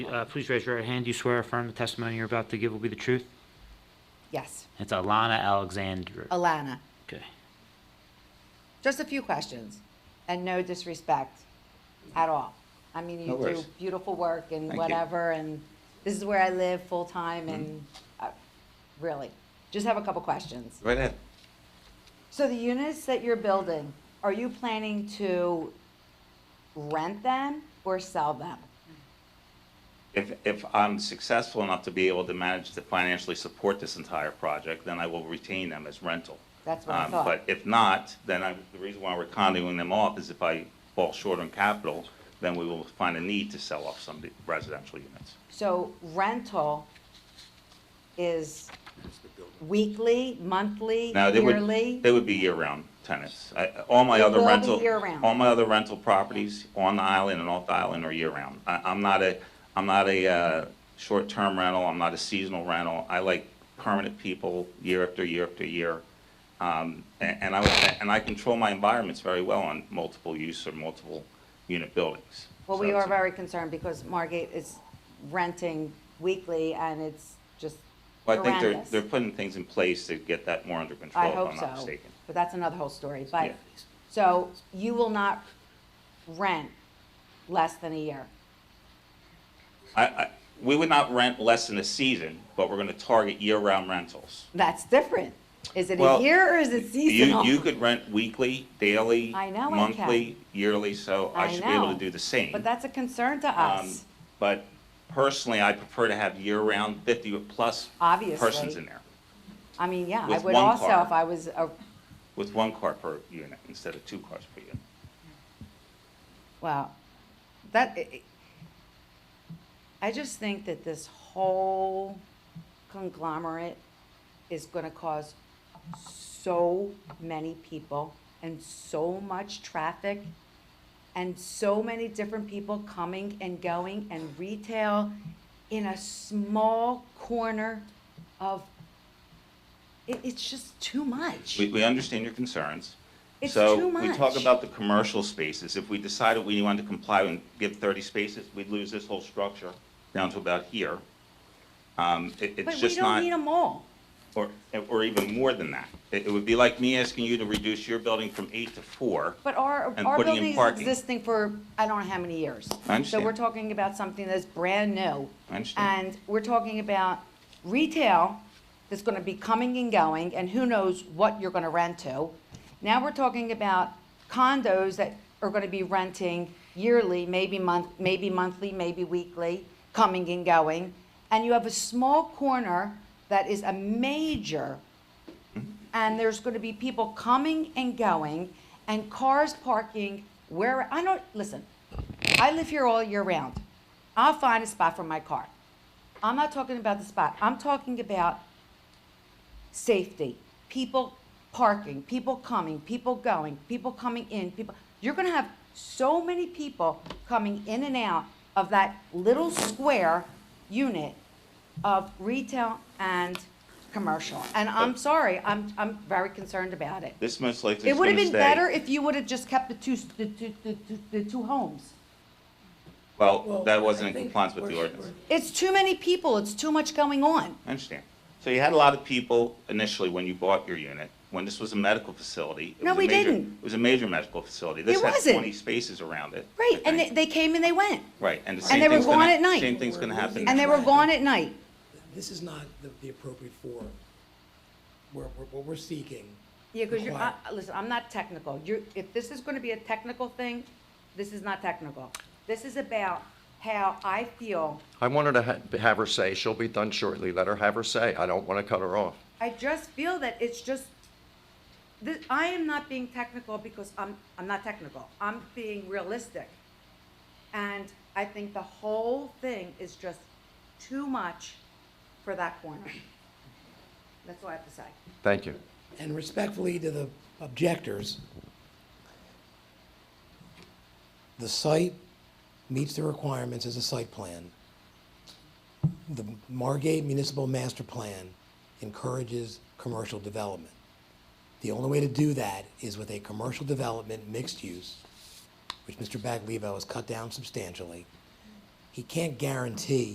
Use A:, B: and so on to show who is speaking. A: Uh, Please raise your right hand. Do you swear or affirm the testimony you're about to give will be the truth?
B: Yes,
A: It's Alana Alexander.
B: Alana,
A: Okay.
B: just a few questions, and no disrespect at all. I mean,
C: No
B: you do
C: worries.
B: beautiful work and
C: Thank you.
B: whatever, and this is where I live full-time, and,
C: Mm-hmm.
B: uh, really, just have a couple questions.
C: Right ahead.
B: So the units that you're building, are you planning to rent them or sell them?
C: If, if I'm successful enough to be able to manage to financially support this entire project, then I will retain them as rental.
B: That's what I
C: Um,
B: thought.
C: But if not, then I, the reason why we're condoing them off is if I fall short on capital, then we will find a need to sell off some of the residential units.
B: So rental is weekly, monthly,
C: Now, they
B: yearly?
C: would, they would be year-round tenants. I- All my
B: They
C: other
B: will be
C: rental.
B: year-round.
C: All my other rental properties on the island and off the island are year-round. I, I'm not a, I'm not a, uh, short-term rental, I'm not a seasonal rental. I like permanent people year after year after year. Um, and, and I, and I control my environments very well on multiple use or multiple unit buildings.
B: Well, we
C: So
B: are
C: it's-
B: very concerned because Margate is renting weekly and it's just
C: Well, I think they're,
B: horrendous.
C: they're putting things in place to get that more under control,
B: I
C: if
B: hope
C: I'm not
B: so,
C: mistaken.
B: but that's another whole story. But,
C: Yeah.
B: so you will not rent less than a year.
C: I, I, we would not rent less than a season, but we're gonna target year-round rentals.
B: That's different. Is it a
C: Well,
B: year or is it
C: You, you
B: seasonal?
C: could rent weekly, daily,
B: I know I
C: monthly, yearly, so I
B: I
C: should be able
B: know,
C: to do the same.
B: But that's a concern to
C: Um,
B: us.
C: But personally, I prefer to have year-round fifty-plus persons
B: Obviously.
C: in there,
B: I mean, yeah, I
C: with
B: would
C: one
B: also
C: car.
B: if I was a,
C: with one car per unit instead of two cars per unit.
B: well, that, i- i- I just think that this whole conglomerate is gonna cause so many people and so much traffic and so many different people coming and going and retail in a small corner of, it, it's just too much.
C: We, we understand your concerns.
B: It's too
C: So we talk
B: much.
C: about the commercial spaces. If we decided we wanted to comply and give 30 spaces, we'd lose this whole structure down to about here. Um, it-
B: But
C: It's
B: we
C: just
B: don't need
C: not,
B: them all.
C: or, or even more than that. It it would be like me asking you to reduce your building from eight to four.
B: But our,
C: and
B: our
C: putting in
B: building is
C: parking.
B: existing for, I don't know how many years.
C: I understand.
B: So we're talking about something that's brand new.
C: I understand.
B: And we're talking about retail that's gonna be coming and going, and who knows what you're gonna rent to. Now we're talking about condos that are gonna be renting yearly, maybe month, maybe monthly, maybe weekly, coming and going. And you have a small corner that is a major
C: Mm-hmm.
B: and there's going to be people coming and going and cars parking where I don't listen. I live here all year round. I'll find a spot for my car. I'm not talking about the spot. I'm talking about safety. People parking, people coming, people going, people coming in, people you're going to have so many people coming in and out of that little square unit of retail and commercial. And I'm sorry, I'm, I'm very concerned about it.
C: This most likely is
B: It would
C: going
B: have been
C: to stay.
B: better if you would have just kept the two, the two, the two, the two homes.
C: Well, that wasn't in compliance with the ordinance.
B: It's too many people, it's too much going on.
C: I understand. So you had a lot of people initially when you bought your unit, when this was a medical facility. it
B: No,
C: was a
B: we
C: major-
B: didn't.
C: It was a major medical facility. This
B: It
C: had
B: wasn't.
C: 20 spaces around it. I
B: Right, and they,
C: think.
B: they came and they went,
C: Right, and the
B: they
C: same
B: were
C: thing's gonna.
B: gone at night.
C: Same thing's gonna happen.
B: and they were gone at night.
D: This is not the, the appropriate forum. We're, we're, what we're seeking.
B: Yeah, because you're, uh,
D: require-
B: listen, I'm not technical. You're, if this is gonna be a technical thing, this is not technical. This is about how I feel.
E: I want her to ha- have her say. She'll be done shortly. Let her have her say. I don't want to cut her off.
B: I just feel that it's just, this, I am not being technical because I'm, I'm not technical. I'm being realistic. And I think the whole thing is just too much for that corner. That's all I have to say.
E: Thank you.
D: And respectfully to the objectors, the site meets the requirements as a site plan. The Margate Municipal Master Plan encourages commercial development. The only way to do that is with a commercial development mixed use, which Mr. Baglivo has cut down substantially, He can't guarantee